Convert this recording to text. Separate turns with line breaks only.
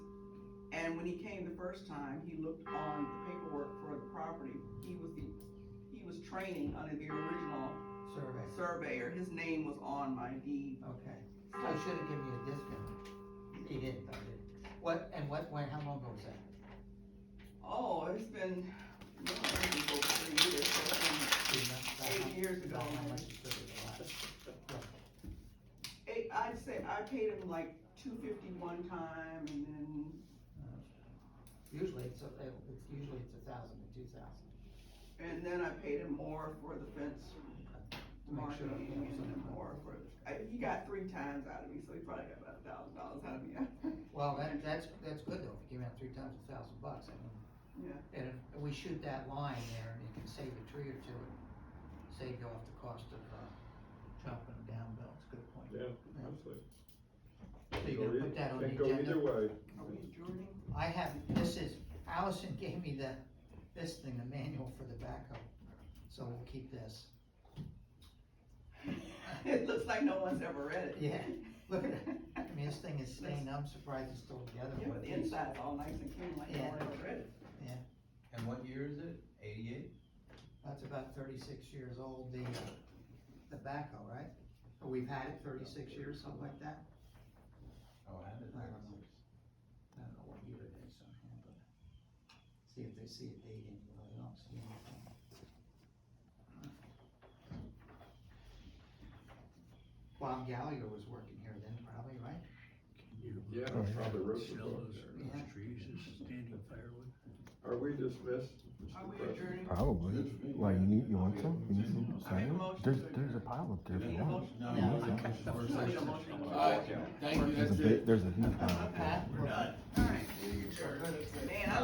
And when he came the first time, he looked on the paperwork for the property, he was the, he was training under the original
survey,
surveyor, his name was on my deed.
okay. I should have given you a discount. He didn't, though, did he? What, and what, when, how long ago was that?
Oh, it's been, no, it's been over three years, so it's
Do you know about
Eight
how-
years ago,
about How
man.
much it took it to last?
been eight, I'd say, I paid him like two fifty one time, and then,
Usually, it's, a- it's, usually it's a thousand to two thousand,
and then I paid him more for the fence
to make sure.
marking,
you know,
and then
something.
more for, I, he got three times out of me, so he probably got about a thousand dollars out of me,
Well, that, that's, that's good though, if you give out three times a thousand bucks, I mean,
yeah.
and if we shoot that line there, and you can save a tree or two, and save you off the cost of, uh, chopping them down, Bill, it's a good point.
Yeah, absolutely.
So you're gonna put that on the
Can't go either
agenda?
way.
Are we adjourning?
I have, this is, Allison gave me the, this thing, the manual for the backhoe, so we'll keep this.
It looks like no one's ever read it.
Yeah, look at it, I mean, this thing is stained, I'm surprised it's still together.
Yeah, but the inside's all nice and clean, like no
Yeah.
one ever read it.
And what year is it? Eighty-eight?
That's about thirty-six years old, the, the backhoe, right? Or We've had it thirty-six years, something like that?
Oh, I had it.
I don't know. I don't know what year it is, on here, but see if they see a date in, it, but I don't see anything. Bob Gallagher was working here then, probably, right?
Yeah, probably wrote the book there.
Yeah.
trees is standing firewood.
Are we dismissed,
Are
Mr.
we
President?
adjourning?
Probably. Why you need you want some? You need some
I make a
cider?
motion
There's
to
there's a
adjourn.
pile up there if
Need
you
a
want.
motion?
No,
No.
I think it's the first
Need a
section.
motion?
All right, thank you,
There's a
that's
big
it.
there's a huge pile. up there.
Pat,
We're done.